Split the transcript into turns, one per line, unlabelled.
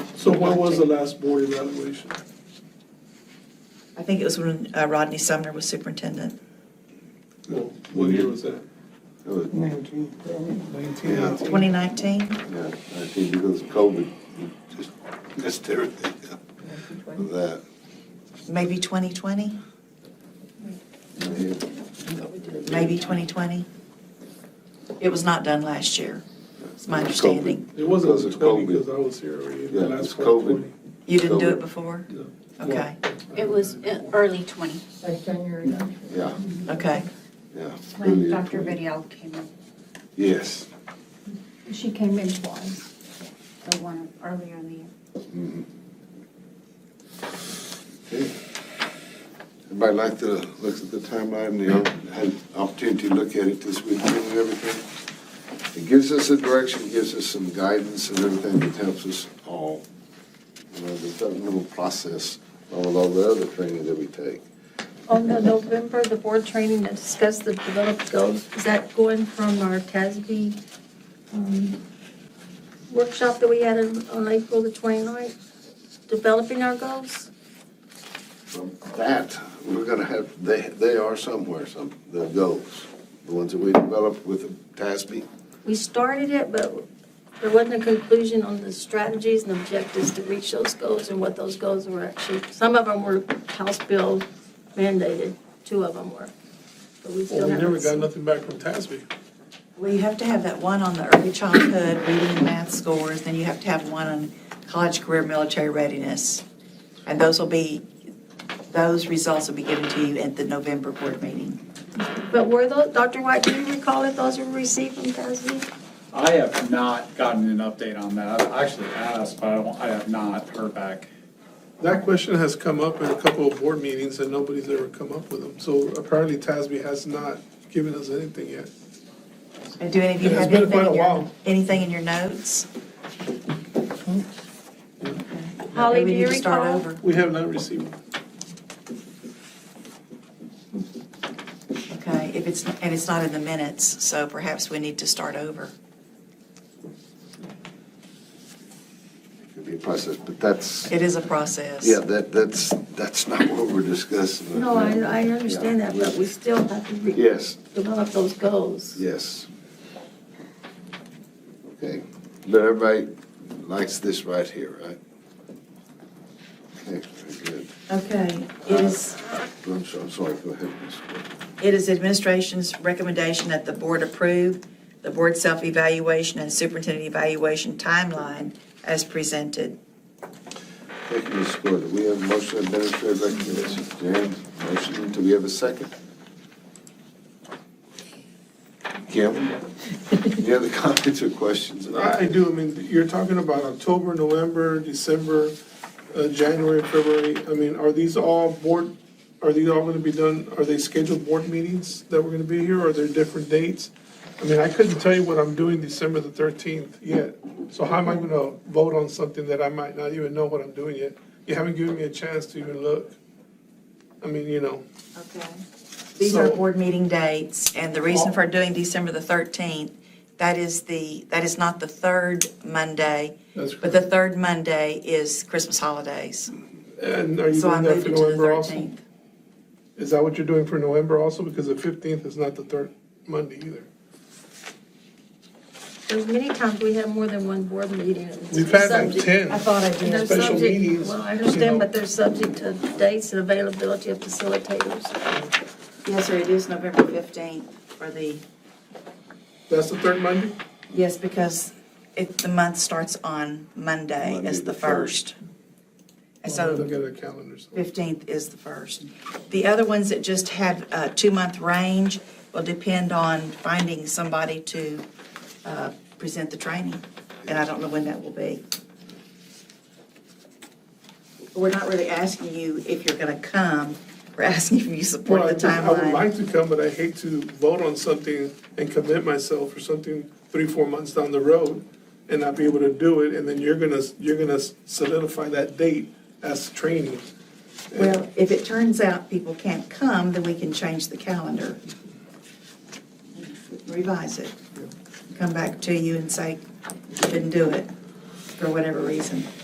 So when was the last board evaluation?
I think it was when uh, Rodney Sumner was superintendent.
Well, what year was that?
It was-
Nineteen, probably nineteen.
Yeah.
2019?
Yeah, I think because of COVID, you just missed everything up with that.
Maybe 2020? Maybe 2020? It was not done last year. It's my understanding.
It wasn't
Because of
twenty,
COVID.
because I was here already, the
Yeah, it was
last
COVID.
one
You didn't do it
COVID.
before?
twenty.
Okay,
It was uh, early 20,
Like January.
Yeah,
okay.
yeah.
when
earlier
Dr.
20.
Vidal came in.
Yes.
She came in twice, so one earlier in the year.
Mhm. Okay. Everybody like to look at the timeline, they all had opportunity to look at it this weekend and everything. It gives us a direction, gives us some guidance and everything that helps us all. You know, the governmental process, all of the other training that we take.
On the November, the board training that discussed the developed goals, is that going from our TASB um, workshop that we had in- on April the 29th? Developing our goals?
From that, we're gonna have, they, they are somewhere, some, the goals, the ones that we developed with TASB.
We started it, but there wasn't a conclusion on the strategies and objectives to reach those goals and what those goals were actually. Some of them were House bill mandated, two of them were. But we
Well,
still
we never got
haven't seen.
nothing back from TASB.
Well, you have to have that one on the early childhood reading and math scores, then you have to have one on college career military readiness. And those will be, those results will be given to you at the November board meeting.
But were those, Dr. White, do you recall if those were received from TASB?
I have not gotten an update on that. I've actually asked, but I don't, I have not heard back.
That question has come up in a couple of board meetings and nobody's ever come up with them. So apparently TASB has not given us anything yet.
And do any of you
It's
have
been
anything
quite a
in your,
while.
anything in your notes?
Holly,
Maybe
do
we
you
need to start
recall?
over.
We have not received.
Okay, if it's, and it's not in the minutes, so perhaps we need to start over.
It could be a process, but that's,
It is a process.
yeah, that, that's, that's not what we're discussing.
No, I, I understand that, but we still have to re-
Yes,
develop those goals.
yes. Okay, but everybody likes this right here, right? Okay, very good.
Okay, it is,
I'm so- I'm sorry, go ahead, Ms. Gordon.
it is administration's recommendation that the board approve the board self-evaluation and superintendent evaluation timeline as presented.
Thank you, Ms. Gordon. We have motion administrative recommendation. Jan, motion, do we have a second? Kim, any other comments or questions?
I I do, I mean, you're talking about October, November, December, uh, January, February. I mean, are these all board, are these all gonna be done, are they scheduled board meetings that we're gonna be here, or are there different dates? I mean, I couldn't tell you what I'm doing December the thirteenth yet, so how am I gonna vote on something that I might not even know what I'm doing yet? You haven't given me a chance to even look. I mean, you know,
Okay. These are
So-
board meeting dates, and the reason for doing December the 13th, that is the, that is not the third Monday,
that's,
but the third Monday is Christmas holidays.
and are you
So I
doing that
moved
for
it to the
November also?
13th.
Is that what you're doing for November also? Because the fifteenth is not the third Monday either.
There's many times we have more than one board meeting. and it's
We've had like
subject-
ten.
I thought I
and they're
did.
special
subject-
meetings,
Well, I
you
understand,
know.
but they're subject to dates and availability of facilitators.
Yes, sir, it is November 15th for the,
That's the third Monday?
yes, because it, the month starts on Monday
Monday,
as the
the
first.
first.
And
Well,
so
Look at the calendar. so-
15th is the first. The other ones that just have a two-month range will depend on finding somebody to uh, present the training, and I don't know when that will be. We're not really asking you if you're going to come, we're asking if you
Well,
support
I
the
just- I would
timeline.
like to come, but I hate to vote on something and commit myself for something three, four months down the road and not be able to do it, and then you're gonna, you're gonna solidify that date as training.
Well, if it turns out people can't come, then we can change the calendar. Revise it. Come back to you and say, couldn't do it, for whatever reason.